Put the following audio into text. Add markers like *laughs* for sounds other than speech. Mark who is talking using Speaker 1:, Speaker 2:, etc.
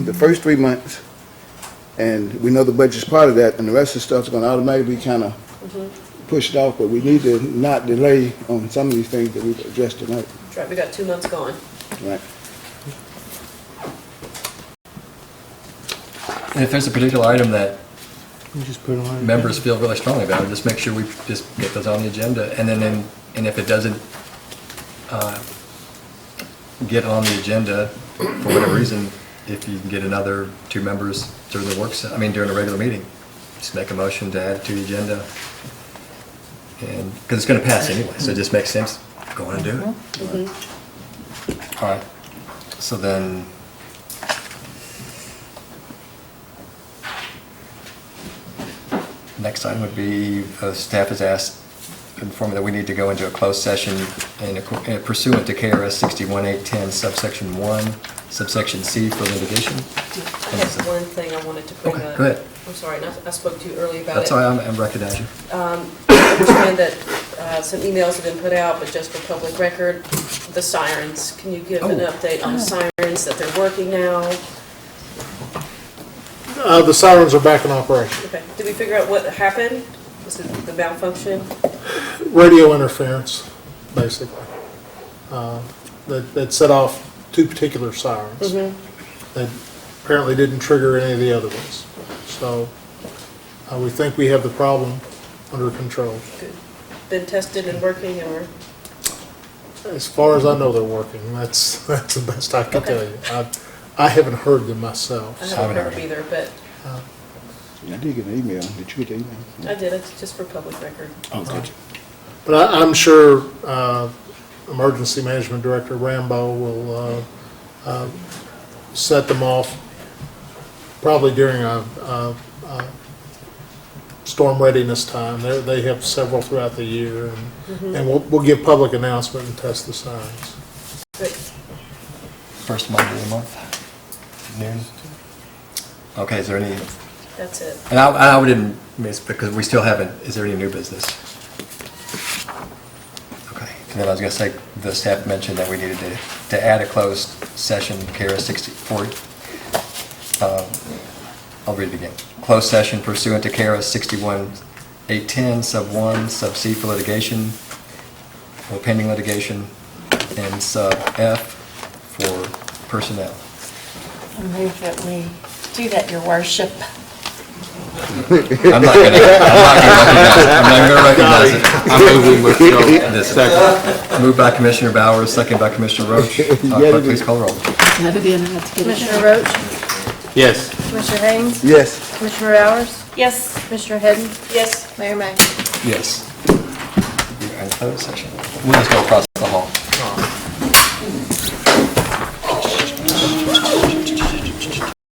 Speaker 1: the first three months, and we know the budget's part of that, and the rest of the stuff's gonna automatically be kinda pushed off, but we need to not delay on some of these things that we've addressed tonight,
Speaker 2: That's right, we got two months gone.
Speaker 1: right?
Speaker 3: And if there's a particular item that
Speaker 4: You just put it on.
Speaker 3: members feel really strongly about, just make sure we just get those on the agenda. And then, and- and if it doesn't uh, get on the agenda for whatever reason, if you can get another two members during the work, se- I mean, during a regular meeting, just make a motion to add it to the agenda. And, because it's going to pass anyway, so it just makes sense, go on and do it. All right, so then, Next item would be, uh, staff has asked, informed that we need to go into a closed session in acco- uh, pursuant to KRS 61810 subsection 1, subsection C for litigation.
Speaker 2: I have one thing I wanted to bring
Speaker 3: Okay,
Speaker 2: up.
Speaker 3: go ahead.
Speaker 2: I'm sorry, and I I spoke to you early about it.
Speaker 3: That's why I'm- I'm recognizing.
Speaker 2: I understand that uh, some emails have been put out, but just for public record, the sirens, can you give an
Speaker 3: Oh.
Speaker 2: update on the sirens, that they're working now?
Speaker 4: Uh, the sirens are back in operation.
Speaker 2: Okay, did we figure out what happened? Was it the malfunction?
Speaker 4: Radio interference, basically. Uh, That, that set off two particular sirens. That apparently didn't trigger any of the other ones. So, uh, we think we have the problem under control.
Speaker 2: Good. Been tested and working, or,
Speaker 4: As far as I know, they're working. That's, *laughs* that's the best I can tell you. I, I haven't heard them myself.
Speaker 2: I
Speaker 4: so-
Speaker 2: haven't
Speaker 3: Haven't
Speaker 2: heard
Speaker 3: heard.
Speaker 2: either, but
Speaker 1: I did get an email, did you get an email?
Speaker 2: I did, it's just for public record.
Speaker 1: Oh, did you?
Speaker 4: But I, I'm sure uh, Emergency Management Director Rambo will uh, uh, set them off probably during a, a, a storm readiness time. They, they have several throughout the year, and, and we'll, we'll give public announcement and test the signs.
Speaker 2: But
Speaker 3: First Monday of the month, noon. Okay, is there any,
Speaker 2: that's it.
Speaker 3: and I, I didn't, miss because we still haven't, is there any new business? Okay, and then I was going to say, the staff mentioned that we needed to, to add a closed session, KRS 64, Um, I'll read it again. Closed session pursuant to KRS 61, 810, sub 1, sub C for litigation, or pending litigation, and sub F for personnel.
Speaker 5: I move that we do that, your worship.
Speaker 3: I'm not going to, I'm not going to recognize it. I'm not going to recognize it. This second. Moved by Commissioner Bowers, second by Commissioner Roach. Uh, Clerk, please call the roll.
Speaker 6: Had to be, and I had to get it.
Speaker 7: Commissioner Roach? Yes. Commissioner Haynes?
Speaker 1: Yes.
Speaker 7: Commissioner Bowers?
Speaker 5: Yes.
Speaker 7: Commissioner Hadden?
Speaker 2: Yes.
Speaker 7: Mayor May?
Speaker 3: Yes. You're in closed session. We'll just go across.